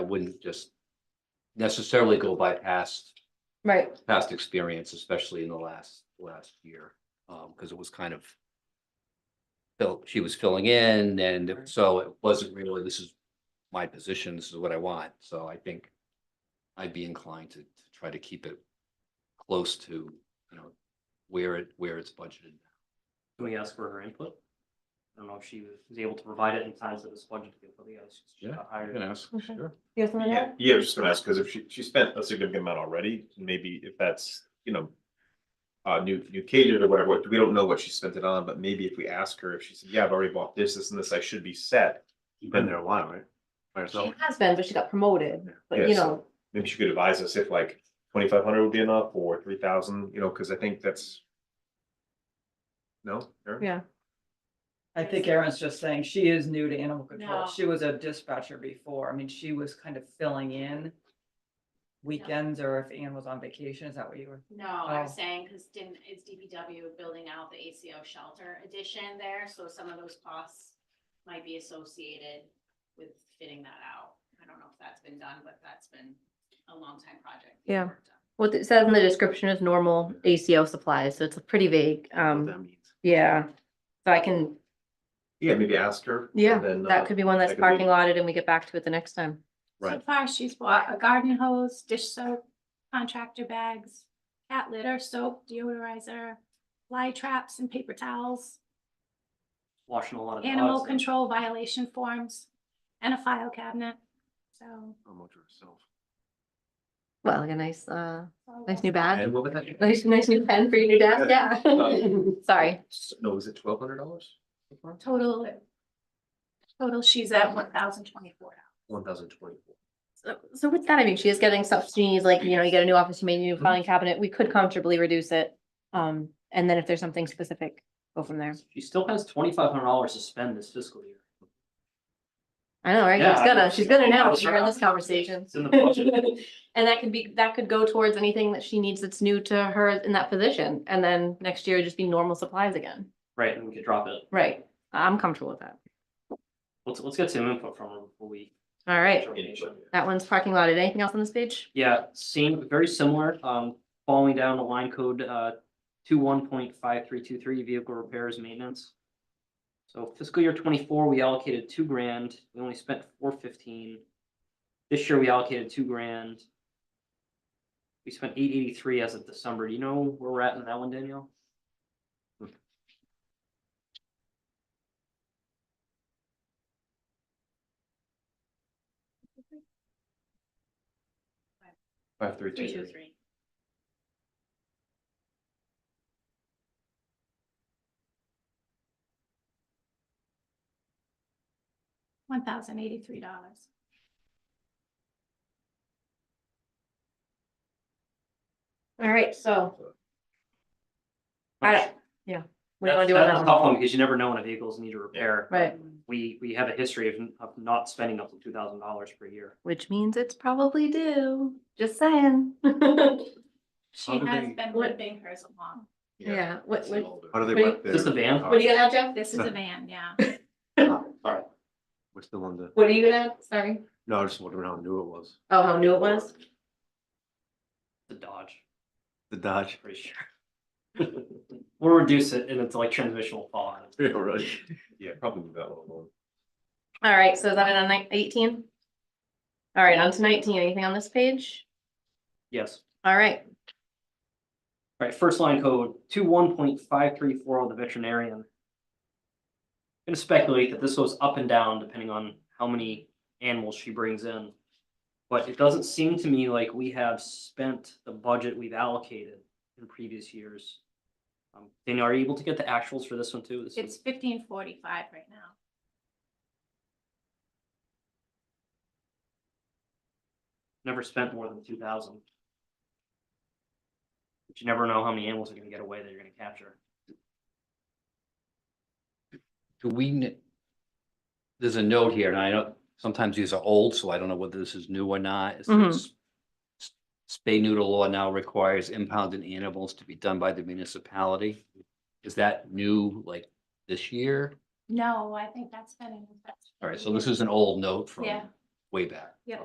wouldn't just necessarily go by past, Right, past experience, especially in the last, last year. Um, because it was kind of fill- she was filling in and it- so it wasn't really, this is my position, this is what I want. So I think I'd be inclined to, to try to keep it close to, you know, where it, where it's budgeted. Can we ask for her input? I don't know if she was able to provide it in times that was budgeted for the, others. she Yeah, got hired. ask, Okay. you have something to Yeah, add? yeah, just gonna ask, because if she, she spent a significant amount already, maybe if that's, you know. Uh, new, new catered or whatever, we don't know what she spent it on, but maybe if we ask her, if she said, yeah, I've already bought this, this and this, I should be set. You've been there a while, right? By She yourself, has been, but she got promoted, but you Yeah, so- know, maybe she could advise us if like twenty-five hundred would be enough or three thousand, you know, because I think that's. No? Erin? yeah, I think Erin's just saying she is new to animal control. No. She was a dispatcher before. I mean, she was kind of filling in weekends or if Ann was on vacation, is that what you were? No, I was Oh. saying, because didn't, is DPW building out the ACO shelter addition there, so some of those costs might be associated with fitting that out. I don't know if that's been done, but that's been a long time project. being Yeah. worked on. what it says in the description is normal ACO supplies, so it's pretty vague, um, yeah. So I can, Yeah, maybe ask her. and yeah, then, uh, that could be one that's that could be- parking lotted and we get back to it the next time. Right. So far, she's bought a garden hose, dish soap, contractor bags, cat litter, soap, deodorizer, fly traps and paper towels, Washing a lot of. animal dogs. control violation forms, and a file cabinet. So. Well, like a nice, uh, so nice new bag, And what was that? nice, nice new pen for your new desk, yeah. Sorry, No, is it twelve hundred dollars? Total, total, she's at one thousand twenty-four. One thousand twenty-four. so, so with that, I mean, she is getting stuff she needs, like, you know, you get a new office, you made a Mm-hmm. new filing cabinet, we could comfortably reduce it. Um, and then if there's something specific, go from there. She still has twenty-five hundred dollars to spend this fiscal year. I know, right? Yeah, She's I know. gonna, she's gonna now, Yeah, she's in this sure. conversation. It's in the budget. And that could be, that could go towards anything that she needs that's new to her in that position, and then next year it'd just be normal supplies again. Right, and we could drop it. Right, I'm comfortable with that. Let's, let's get some input from her before we. All right, Determination. that one's parking lot. Anything else on this page? Yeah, same, very similar, um, falling down the line code, uh, two one point five three two three, vehicle repairs, maintenance. So fiscal year twenty-four, we allocated two grand, we only spent four fifteen. This year, we allocated two grand. We spent eight eighty-three as of December, do you know where we're at in that one, Danielle? Five three Three, two, two. three. One thousand eighty-three dollars. All right, so I don't- what do you That's- wanna do on that's that a one? tough one, because you never know when a vehicle's need a repair. Right, We, we have a history of, of not spending up to two thousand dollars per year. which means it's probably due, just saying. She do has they- been limping hers along. Yeah, what, what, what How do they What do you- work Oh, Is this the the, van? are you gonna have, Jeff? This is a van, yeah. what's the one that, What are you gonna, sorry? no, I just wondering how new it was, Oh, how new it was? The Dodge, the Dodge. pretty sure. We'll reduce it and it's like transmission will fall out. Yeah, probably that one alone. All right, so is that it on nine- eighteen? All right, on to nineteen. Anything on this page? Yes. All right, Right, first line code, two one point five three four of the veterinarian. Gonna speculate that this goes up and down depending on how many animals she brings in. But it doesn't seem to me like we have spent the budget we've allocated in previous years. Um, Danielle, are you able to get the actuals for this one too? This It's is fifteen forty-five right now. never spent more than two thousand. But you never know how many animals are gonna get away that you're gonna capture. Do we, kn- there's a note here, and I know sometimes these are old, so I don't know whether this is new or not. It Mhm. says, "S- Spay noodle law now requires impounded animals to be done by the municipality. Is that new, like, this year? No, I think that's been. in effect for All right, so years. this is an old note from Yeah. way back.